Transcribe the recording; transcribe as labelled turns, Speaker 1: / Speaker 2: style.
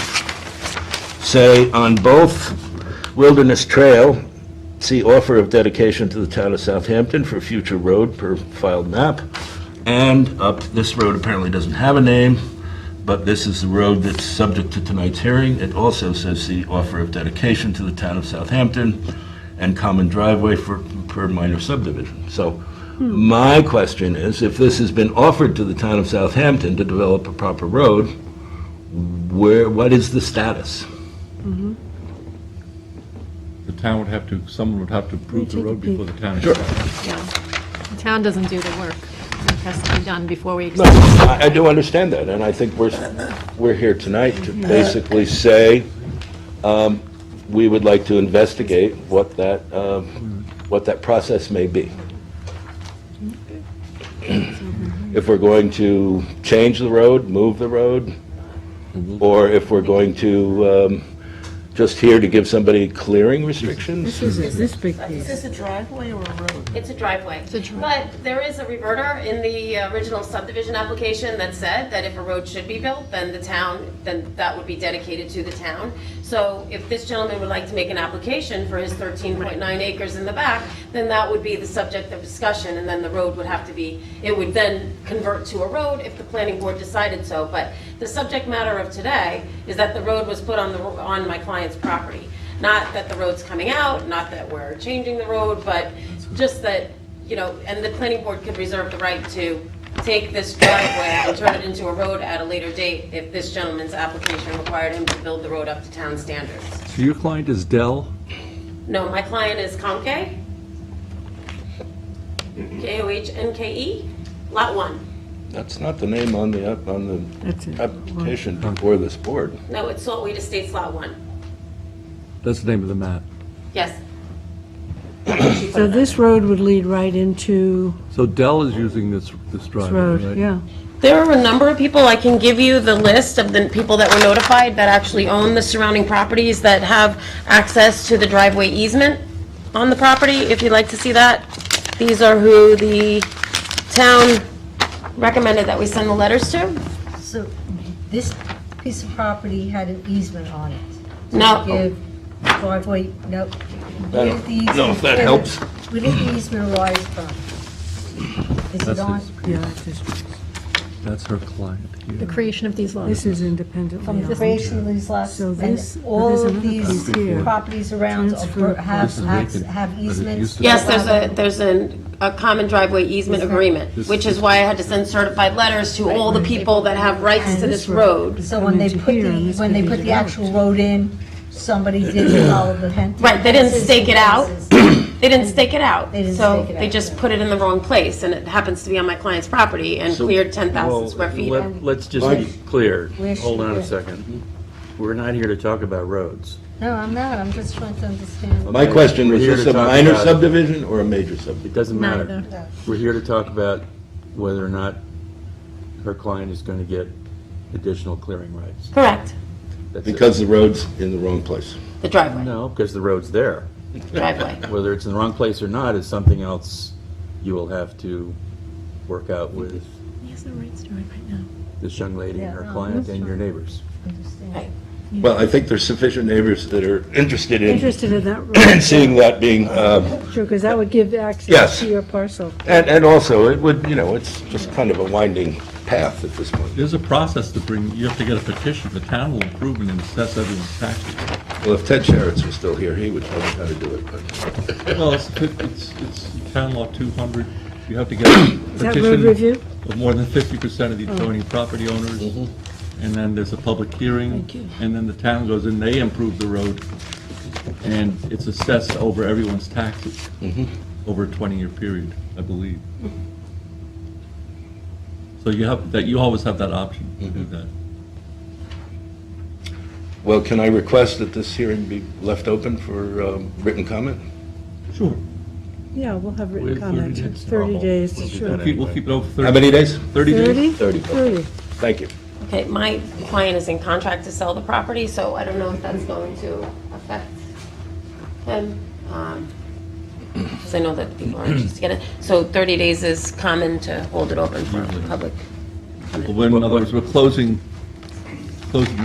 Speaker 1: say on both Wilderness Trail, see offer of dedication to the town of Southampton for future road per filed map. And up, this road apparently doesn't have a name, but this is the road that's subject to tonight's hearing. It also says see offer of dedication to the town of Southampton and common driveway for, per minor subdivision. So my question is, if this has been offered to the town of Southampton to develop a proper road, where, what is the status?
Speaker 2: The town would have to, someone would have to approve the
Speaker 3: take a
Speaker 2: road before the town.
Speaker 3: Yeah. The town doesn't do the work. It has to be done before we,
Speaker 1: No, I I do understand that, and I think we're, we're here tonight to basically say, um, we would like to investigate what that, um, what that process may be. If we're going to change the road, move the road, or if we're going to, um, just here to give somebody clearing restrictions?
Speaker 4: This is this big
Speaker 5: Is
Speaker 4: piece.
Speaker 5: this a driveway or a road?
Speaker 6: It's a driveway.
Speaker 3: a dri-
Speaker 6: But there is a reverter in the original subdivision application that said that if a road should be built, then the town, then that would be dedicated to the town. So if this gentleman would like to make an application for his 13.9 acres in the back, then that would be the subject of discussion, and then the road would have to be, it would then convert to a road if the planning board decided so. But the subject matter of today is that the road was put on the, on my client's property. Not that the road's coming out, not that we're changing the road, but just that, you know, and the planning board could reserve the right to take this driveway and turn it into a road at a later date if this gentleman's application required him to build the road up to town standards.
Speaker 2: So your client is Dell?
Speaker 6: No, my client is Comke, K-O-H-N-K-E, E? Lot 1.
Speaker 1: That's not the name on the, app- on
Speaker 4: That's it.
Speaker 1: the application before this board.
Speaker 6: No, it's Saltweed Estates Lot 1.
Speaker 2: That's the name of the map.
Speaker 6: Yes.
Speaker 4: So this road would lead right into
Speaker 2: So Dell is using this, this
Speaker 4: this
Speaker 2: driveway, right?
Speaker 4: road, yeah.
Speaker 6: There are a number of people, I can give you the list of the people that were notified that actually own the surrounding properties that have access to the driveway easement on the property, if you'd like to see that. These are who the town recommended that we send the letters to.
Speaker 7: So this piece of property had an easement on it.
Speaker 6: No.
Speaker 7: Give driveway, no.
Speaker 1: I
Speaker 7: Where's the
Speaker 1: don't know if
Speaker 7: easement?
Speaker 1: that helps.
Speaker 7: Where did the easement arise from? Is it
Speaker 2: That's
Speaker 7: on,
Speaker 2: his,
Speaker 4: Yeah, it's just-
Speaker 2: that's her client
Speaker 3: the
Speaker 2: here.
Speaker 3: creation of these lots.
Speaker 4: this is independently
Speaker 7: from the
Speaker 4: owned.
Speaker 7: creation of these lots?
Speaker 4: So
Speaker 7: and
Speaker 4: this- oh, there's
Speaker 7: All of
Speaker 4: another
Speaker 7: these
Speaker 4: piece here.
Speaker 7: properties around are
Speaker 4: Transfer
Speaker 7: per- have,
Speaker 2: This is
Speaker 7: have
Speaker 2: vacant,
Speaker 7: have
Speaker 2: but it used
Speaker 7: easements?
Speaker 2: to be- Yes,
Speaker 6: there's a, there's a, a common driveway easement agreement, which is why I had to send certified letters to all the people that have rights to this road.
Speaker 7: So when they
Speaker 4: Coming to
Speaker 7: put
Speaker 4: here, and
Speaker 7: the,
Speaker 4: this
Speaker 7: when
Speaker 4: could
Speaker 7: they
Speaker 4: be
Speaker 7: put the actual road in, somebody didn't follow the hen.
Speaker 6: Right, they didn't stake it out. They didn't stake it out.
Speaker 7: They didn't
Speaker 6: So
Speaker 7: stake it
Speaker 6: they
Speaker 7: out,
Speaker 6: just
Speaker 7: yeah.
Speaker 6: put it in the wrong place, and it happens to be on my client's property and
Speaker 8: So-
Speaker 6: cleared 10,000
Speaker 8: Well,
Speaker 6: square feet.
Speaker 8: let- Let's just be
Speaker 1: Mike?
Speaker 8: clear.
Speaker 7: Where should
Speaker 8: Hold on
Speaker 7: we-
Speaker 8: a second. We're not here to talk about roads.
Speaker 7: No, I'm not, I'm just trying to understand.
Speaker 1: My question, was
Speaker 8: We're here
Speaker 1: this
Speaker 8: to
Speaker 1: a
Speaker 8: talk
Speaker 1: minor
Speaker 8: about-
Speaker 1: subdivision or a major subdivision?
Speaker 8: It doesn't matter.
Speaker 3: Neither.
Speaker 8: We're here to talk about whether or not her client is going to get additional clearing rights.
Speaker 6: Correct,
Speaker 8: That's it.
Speaker 1: Because the road's in the wrong place.
Speaker 6: the driveway,
Speaker 8: No, because the road's there.
Speaker 6: driveway.
Speaker 8: Whether it's in the wrong place or not is something else you will have to work out with
Speaker 3: He has the right story right now.
Speaker 8: this young lady and her
Speaker 7: Yeah, no,
Speaker 8: client
Speaker 7: that's
Speaker 8: and your
Speaker 7: fine.
Speaker 8: neighbors.
Speaker 7: Understand.
Speaker 1: Well, I think there's sufficient neighbors that are interested in
Speaker 4: Interested in that road,
Speaker 1: seeing that being, um,
Speaker 4: sure, because that would give
Speaker 1: Yes.
Speaker 4: access to your parcel.
Speaker 1: and, and also, it would, you know, it's just kind of a winding path at this point.
Speaker 2: There's a process to bring, you have to get a petition. The town will approve and assess everyone's taxes.
Speaker 1: Well, if Ted Sharretts was still here, he would tell me how to do it, but
Speaker 2: Well, it's, fif- it's, it's town law 200. You have to get a
Speaker 4: that road
Speaker 2: petition
Speaker 4: review? Oh.
Speaker 2: of more than 50% of the adjoining property owners. And then there's a public hearing.
Speaker 4: Mm-hmm. Thank you.
Speaker 2: And then the town goes in, they improve the road. And it's assessed over everyone's taxes,
Speaker 4: Mm-hmm.
Speaker 2: over a 20-year period, I believe. So you have, that, you always have that option to
Speaker 4: Mm-hmm.
Speaker 2: do that.
Speaker 1: Well, can I request that this hearing be left open for um, written comment?
Speaker 2: Sure.
Speaker 4: Yeah, we'll have
Speaker 2: We'll-
Speaker 4: written
Speaker 2: we'll
Speaker 4: comment,
Speaker 2: do that.
Speaker 4: 30 days,
Speaker 1: We'll do
Speaker 4: sure.
Speaker 1: that.
Speaker 2: We'll keep, we'll keep it over 30.
Speaker 1: How many days?
Speaker 2: 30 days.
Speaker 1: Thirty.
Speaker 4: 30? 30.
Speaker 1: Thank you.
Speaker 6: Okay, my client is in contract to sell the property, so I don't know if that's going to affect him. Because I know that people are anxious to get it. So 30 days is common to hold it open for public.
Speaker 2: Well, In other words, we're closing, closing